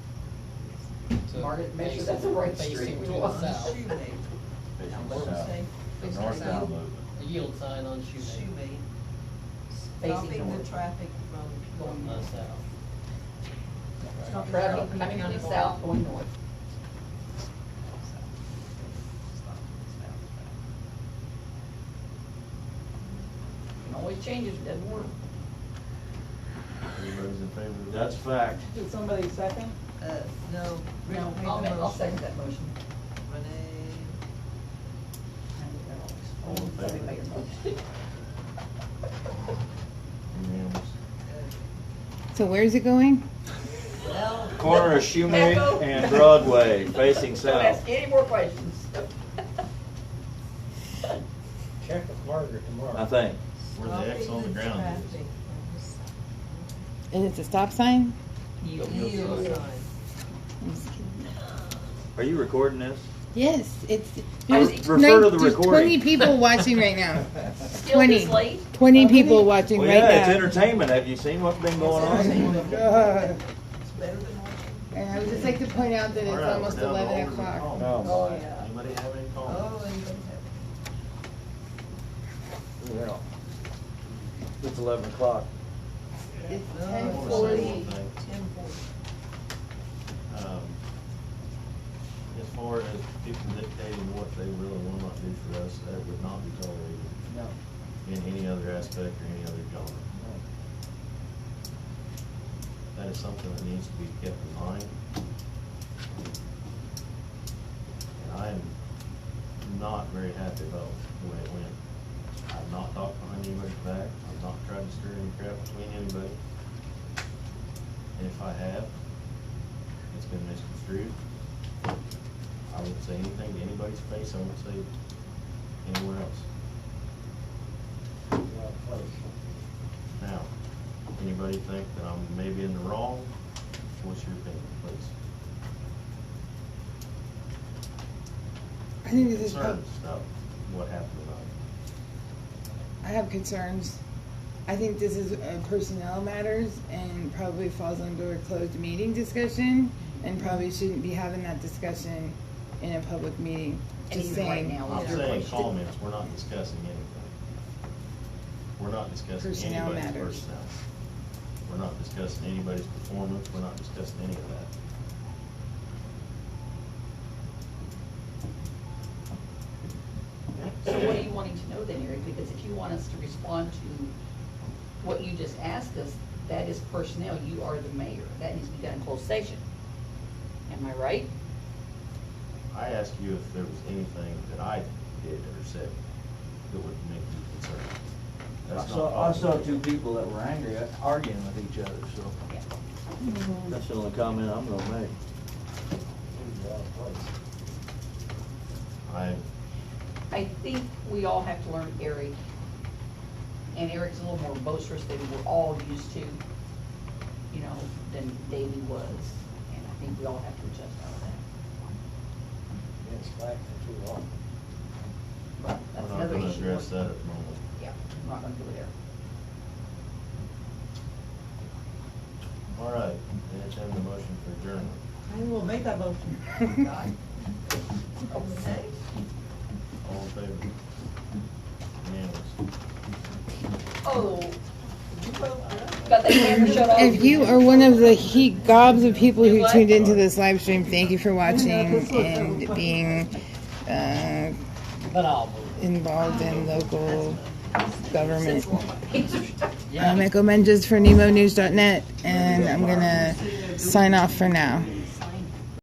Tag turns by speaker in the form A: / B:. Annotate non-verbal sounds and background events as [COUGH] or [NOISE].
A: Market, make sure
B: facing-
A: that's the right
B: facing
A: street
B: to
A: to
B: the
A: us.
B: south.
C: Facing
B: Now,
C: south,
B: what's the
C: the
B: state?
D: Facing
C: northbound
D: south.
C: movement.
B: A yield sign on Shoemake,
D: Shoemake.
A: Facing
D: Stopping the
A: north.
D: traffic from
B: going
D: going
B: uh,
D: north.
B: south.
D: Stop the
A: Traffic coming
D: County
A: from
D: going
A: south going north. It always changes, it doesn't work.
C: Everybody's in favor of that?
E: That's fact.
F: Did somebody second?
D: Uh, no, Rick
A: No, I'll,
D: made the
A: ma- I'll
D: motion.
A: second that motion.
D: Renee,
C: All in favor?
A: Somebody make a motion.
C: Unanimous.
G: So where's it going?
D: uh, Al,
E: Corner of Shoemake and Broadway, facing
A: Don't ask
E: south.
A: any more questions.
H: Check with Margaret tomorrow.
E: I think.
C: Where the X on the
D: stopping
C: ground is.
D: traffic from the south.
G: And it's a stop sign?
D: Yield
B: Yield
D: sign.
B: sign.
E: Are you recording this?
G: Yes, it's.
E: I would
G: there's
E: refer
G: nine-
E: to the
G: there's Twenty
E: recording. [LAUGHS]
G: people watching right now.
A: Still
G: Twenty.
A: this late?
G: Twenty
F: How many?
G: people watching
E: Well,
G: right
E: yeah, it's
G: now.
E: entertainment. Have you seen what's been going
H: Oh,
E: on?
D: It's better than watching.
G: And I would just like to point out that
C: All
G: it's
C: right, we're
G: almost
C: down to
G: eleven
C: Alderman
G: o'clock.
C: Collins.
E: Oh, my.
C: Anybody have any
D: Oh,
C: comments?
D: and you have
E: Yeah. It's eleven o'clock.
G: It's
D: No, I
G: ten
C: wanna say
G: forty.
C: one thing.
D: ten forty.
C: Um, As far as people dictating what they will and will not do for us, that would not be tolerated
H: No,
C: in any other aspect or any other genre.
H: no.
C: That is something that needs to be kept in mind. And I am not very happy about the way it went. I've not talked behind anybody's back, I've not tried to stir any crap between anybody. And if I have, it's been misconstrued. I won't say anything to anybody's face, I won't say it anywhere else.
H: You're out of place.
C: Now, anybody think that I'm maybe in the wrong? What's your opinion, please?
G: I think this is,
C: Concerns about what happened tonight?
G: I have concerns. I think this is uh, personnel matters and probably falls under a closed meeting discussion and probably shouldn't be having that discussion in a public meeting.
A: And
G: Just
A: even right
G: saying.
A: now,
C: I'm
A: your
C: saying
A: question-
C: comments, we're not discussing anything. We're not discussing
G: Personnel
C: anybody's
G: matters.
C: personnel. We're not discussing anybody's performance, we're not discussing any of that.
A: So what are you wanting to know then, Eric? Because if you want us to respond to what you just asked us, that is personnel, you are the mayor, that needs to be done in closed session. Am I right?
C: I asked you if there was anything that I did or said that would make you concerned.
E: I
C: That's not
E: saw, I saw
C: possible.
E: two people that were angry, at- arguing with each other, so. That's the only comment I'm gonna make.
H: You're out of place.
C: I,
A: I think we all have to learn Eric. And Eric's a little more boisterous than we're all used to, you know, than Davey was. And I think we all have to adjust out of that.
H: Been slacking too long.
A: But
C: we're
A: that's
C: not
A: another
C: gonna
A: issue.
C: address that at the moment.
A: Yeah, I'm not gonna go there.
C: All right, entertain the motion for adjournment.
D: I will make that motion.
A: Oh
G: [LAUGHS]
D: Okay.
C: All in favor? Unanimous.
A: Oh, got that camera shut off.
G: If you are one of the he gobs of people
A: You
G: who
A: what?
G: tuned into this live stream, thank you for watching and being uh,
B: But I'll move.
G: involved in local government.
A: Pictures.
G: I'm Echo Menges for NemoNews.net, and I'm gonna sign off for now.